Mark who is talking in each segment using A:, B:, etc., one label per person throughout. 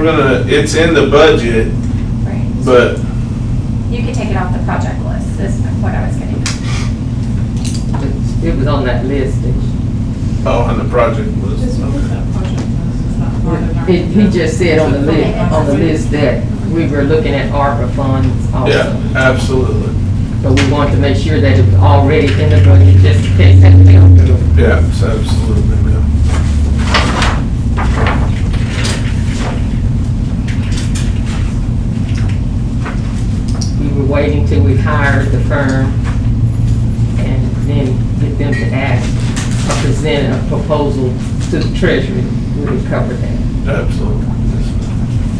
A: We're gonna, it's in the budget,
B: Right.
A: but
B: You could take it off the project list, is what I was getting. at.
C: It's- It was on that list.
A: Oh, on the project list.
C: He, he just said on the list, on the list that we were looking at ARPA funds
A: Yeah,
C: also.
A: absolutely.
C: So we wanted to make sure that it was already in the budget, just in case that fell through.
A: Yeah, it's absolutely, yeah.
C: We were waiting till we hired the firm and then get them to ask or present a proposal to the treasury. We would cover that.
A: Absolutely. Yes,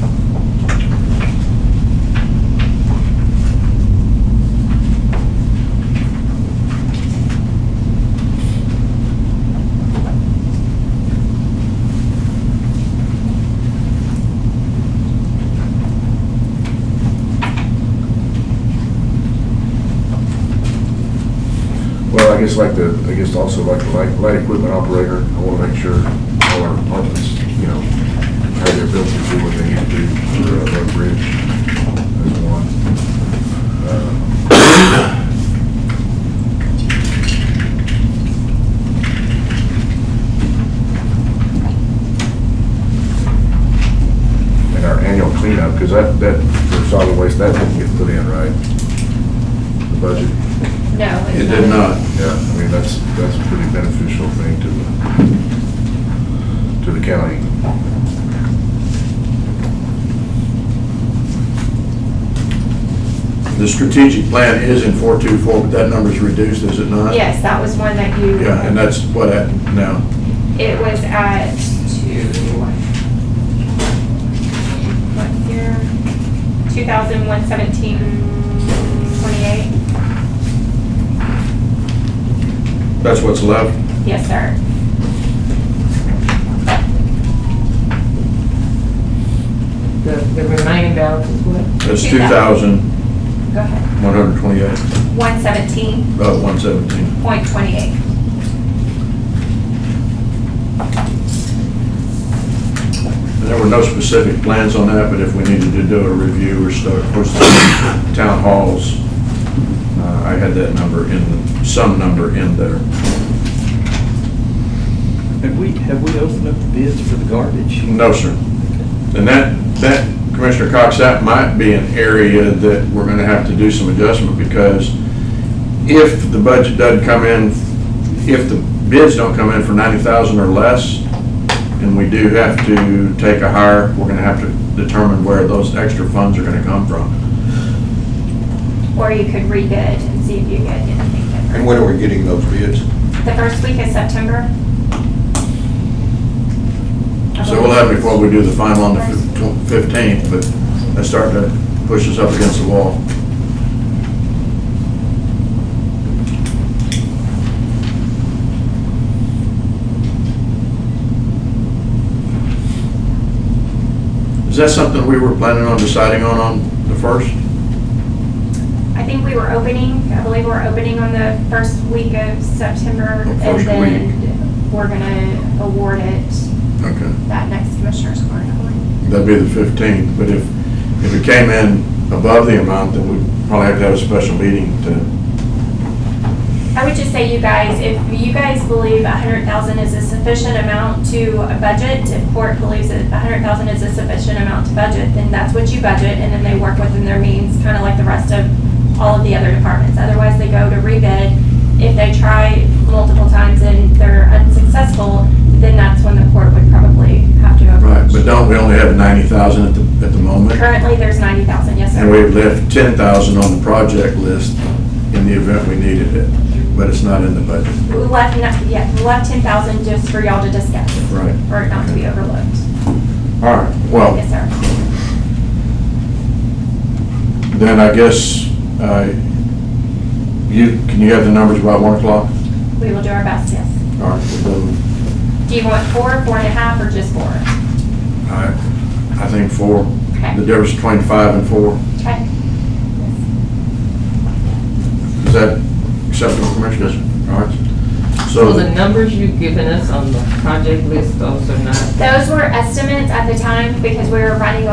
A: ma'am.
D: Well, I guess like the, I guess also like the light, light equipment operator, I wanna make sure all our departments, you know, how they're built to do what they need to do for a road bridge. That's one. Uh, Uh, And our annual cleanup, cause that, that, for solid waste, that didn't get put in, right? The budget.
B: No. it's
E: It did not.
D: Yeah, I mean, that's, that's a pretty beneficial thing to the, to the county.
E: The strategic plan is in 424, but that number's reduced, is it not?
B: Yes, that was one that you.
E: Yeah, and that's what happened now.
B: It was at two. What year? Two thousand one seventeen twenty-eight?
E: That's what's left.
B: Yes, sir.
C: The, the remaining balance is what?
E: That's
B: 2,000.
E: 2,128,
B: Go ahead. One seventeen
E: about 117.
B: point twenty-eight.
E: And There were no specific plans on that, but if we needed to do a review or start, of course, the town halls, uh, I had that number in, some number in there.
F: Have we, have we opened up the bids for the garbage?
E: No, sir. And that, that, Commissioner Cox, that might be an area that we're gonna have to do some adjustment, because if the budget doesn't come in, if the bids don't come in for ninety thousand or less, and we do have to take a hire, we're gonna have to determine where those extra funds are gonna come from.
B: Or you could rebid and see if you get anything different.
G: And when are we getting those bids?
B: The first week of September.
E: So we'll have it before we do the final on the fifteenth, but that's starting to push us up against the wall. Is that something we were planning on deciding on on the first?
B: I think we were opening, I believe we're opening on the first week of September.
E: The
B: And
E: first
B: then we're gonna award it
E: Okay.
B: that next commissioner's court. I believe.
E: That'd be the 15th, but if, if it came in above the amount, then we'd probably have to have a special meeting to,
B: I would just say you guys, if you guys believe a hundred thousand is a sufficient amount to a budget, if court believes that a hundred thousand is a sufficient amount to budget, then that's what you budget and then they work within their means, kind of like the rest of all of the other departments. Otherwise, they go to rebid. If they try multiple times and they're unsuccessful, then that's when the court would probably have to
E: right,
B: approach.
E: but don't we only have 90,000 at the, at the moment?
B: Currently, there's ninety thousand, yes, sir.
E: And we've left ten thousand on the project list in the event we needed it, but it's not in the budget.
B: We left, no- yeah, we left ten thousand just for y'all to discuss,
E: Right.
B: for it not to be overlooked.
E: All right, well,
B: Yes, sir.
E: then I guess, uh, you, can you have the numbers by one o'clock?
B: We will do our best, yes.
E: All right, well, then,
B: Do you want four, four and a half, or just four?
E: uh, I, I think four, the
B: Okay.
E: difference between five and four,
B: Okay.
E: is that acceptable, Commissioners? All right.
C: So
E: So-
C: the numbers you've given us on the project list, those are not
B: Those were estimates at the time because we were running